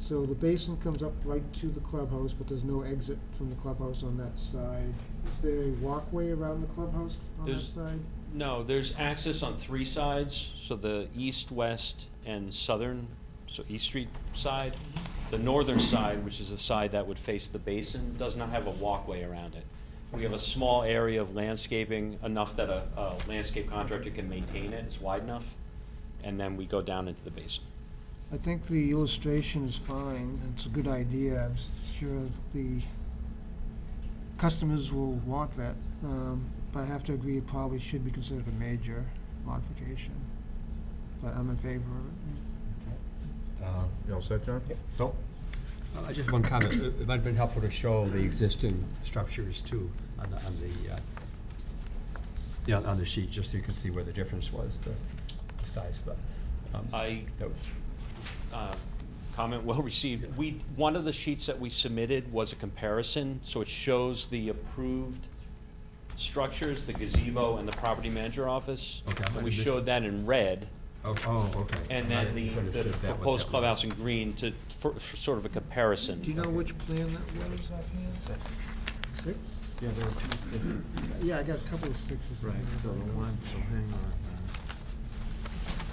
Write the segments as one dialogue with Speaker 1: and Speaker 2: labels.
Speaker 1: So the basin comes up right to the clubhouse, but there's no exit from the clubhouse on that side. Is there a walkway around the clubhouse on that
Speaker 2: There's-
Speaker 1: side?
Speaker 2: No, there's access on three sides, so the east, west, and southern, so East Street side. The northern side, which is the side that would face the basin, does not have a walkway around it. We have a small area of landscaping, enough that a, a landscape contractor can maintain it, it's wide enough, and then we go down into the basin.
Speaker 1: I think the illustration is fine, it's a good idea, I'm s- sure the customers will want that, um, but I have to agree it probably should be considered a major modification, but I'm in favor of it.
Speaker 3: Uh,
Speaker 4: You all set, John?
Speaker 3: Phil?
Speaker 5: Uh, Just one comment. It it might have been helpful to show the existing structures too on the, on the, uh, yeah, on the sheet, just so you can see where the difference was, the size, but. um,
Speaker 2: I
Speaker 5: that was-
Speaker 2: uh, comment well received. We, one of the sheets that we submitted was a comparison, so it shows the approved structures, the gazebo and the property manager office.
Speaker 5: Okay, I
Speaker 2: And we
Speaker 5: missed-
Speaker 2: showed that in red,
Speaker 5: Oh, oh, okay.
Speaker 2: and
Speaker 5: I
Speaker 2: then the, the
Speaker 5: misunderstood that, what
Speaker 2: proposed
Speaker 5: that
Speaker 2: clubhouse
Speaker 5: was.
Speaker 2: in green to, for, for sort of a
Speaker 1: Do you
Speaker 2: comparison.
Speaker 1: know which plan that was offhand?
Speaker 4: Six.
Speaker 1: Six?
Speaker 4: Yeah, there were two sixes.
Speaker 1: Yeah, I got a couple of sixes. in
Speaker 4: Right,
Speaker 1: there.
Speaker 4: so the one, so hang on. uh,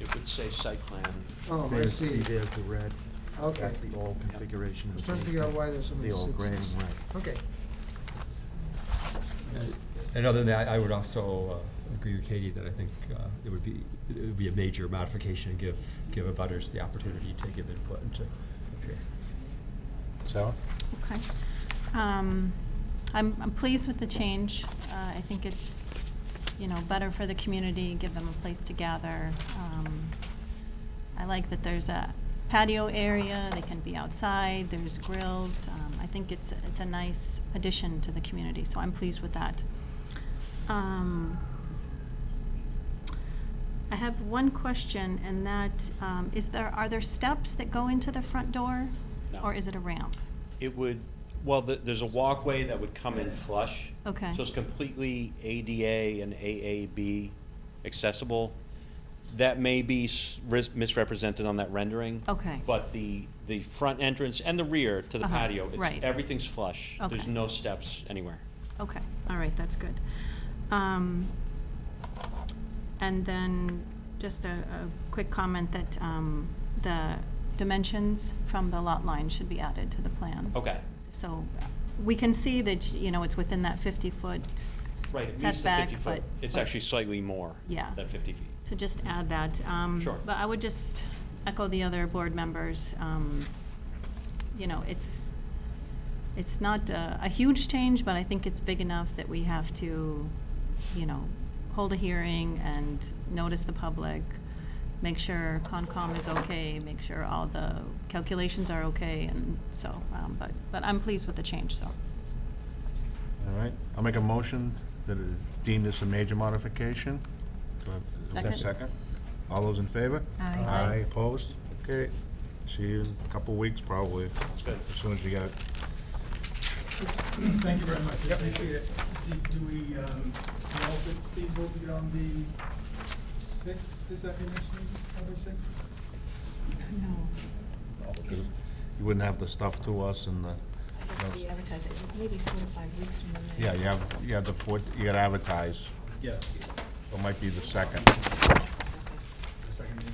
Speaker 2: It would say site plan.
Speaker 1: Oh,
Speaker 4: uh,
Speaker 1: I
Speaker 4: There's, see,
Speaker 1: see,
Speaker 4: there's the red.
Speaker 1: okay.
Speaker 4: That's the old configuration
Speaker 1: I
Speaker 4: of
Speaker 1: was
Speaker 4: the
Speaker 1: trying to figure out
Speaker 4: basin.
Speaker 1: why there's so many
Speaker 4: The
Speaker 1: sixes.
Speaker 4: old gray and white.
Speaker 1: Okay,
Speaker 5: And- uh, And other than that, I would also uh, agree with Katie that I think uh, it would be, it would be a major modification and give, give abutters the opportunity to give input and to appear.
Speaker 3: Sarah?
Speaker 6: Okay. Um, I'm, I'm pleased with the change. Uh, I think it's, you know, better for the community, give them a place to gather. Um, I like that there's a patio area, they can be outside, there's grills. Um, I think it's, it's a nice addition to the community, so I'm pleased with that. Um, I have one question, and that, um, is there, are there steps that go into the front door?
Speaker 2: No.
Speaker 6: Or is it a ramp?
Speaker 2: It would, well, the- there's a walkway that would come in flush.
Speaker 6: Okay.
Speaker 2: So it's completely ADA and AAB accessible. That may be s- ris- misrepresented on that rendering.
Speaker 6: Okay.
Speaker 2: But the, the front entrance and the rear to the
Speaker 6: Uh-huh,
Speaker 2: patio, it's-
Speaker 6: right.
Speaker 2: everything's flush. There's
Speaker 6: Okay.
Speaker 2: no steps anywhere.
Speaker 6: Okay, all right, that's good. Um, And then just a, a quick comment that um, the dimensions from the lot line should be added to the plan.
Speaker 2: Okay.
Speaker 6: So uh, we can see that, you know, it's within that 50-foot,
Speaker 2: Right, it meets the
Speaker 6: Setback,
Speaker 2: 50 foot.
Speaker 6: but-
Speaker 2: It's
Speaker 6: but-
Speaker 2: actually slightly more
Speaker 6: Yeah.
Speaker 2: than 50 feet.
Speaker 6: so just add that. Um,
Speaker 2: Sure.
Speaker 6: But I would just echo the other board members. um, You know, it's, it's not a, a huge change, but I think it's big enough that we have to, you know, hold a hearing and notice the public, make sure Concom is okay, make sure all the calculations are okay, and so, um, but, but I'm pleased with the change, so.
Speaker 4: All right, I'll make a motion that it is deemed this a major modification. Do I have a
Speaker 6: Second.
Speaker 4: Second. All those in favor?
Speaker 7: Aye.
Speaker 6: Aye.
Speaker 4: Aye, opposed? Okay, see you in a couple weeks probably,
Speaker 2: That's good.
Speaker 4: as soon as you get it.
Speaker 8: Thank you very much, I appreciate it. Do- Do we, um, know if it's feasible to get on the sixth, is that the next meeting, October sixth?
Speaker 4: You wouldn't have the stuff to us and the,
Speaker 7: It's the advertising, maybe four to five weeks from now.
Speaker 4: yeah, you have, you have the fourth, you gotta advertise.
Speaker 8: Yes.
Speaker 4: It might be the second,
Speaker 8: The second meeting.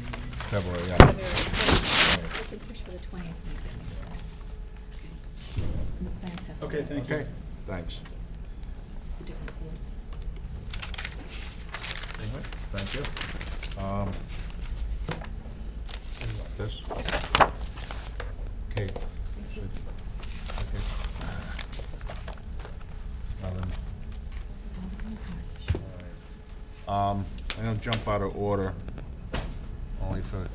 Speaker 4: February, yeah.
Speaker 7: Very good. We could push for the twentieth. Thanks. uh,
Speaker 8: Okay, thank you.
Speaker 4: Okay, thanks.
Speaker 7: for different boards.
Speaker 4: All right, Thank you. Um, This? Okay. Okay. Now then.
Speaker 7: Always in touch.
Speaker 4: Um, I'm gonna jump out of order, only for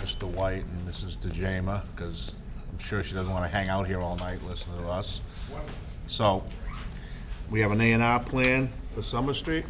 Speaker 4: Mr. White and Mrs. DeJama, because I'm sure she doesn't want to hang out here all night listening to us. So, we have an A and R plan for Summer Street.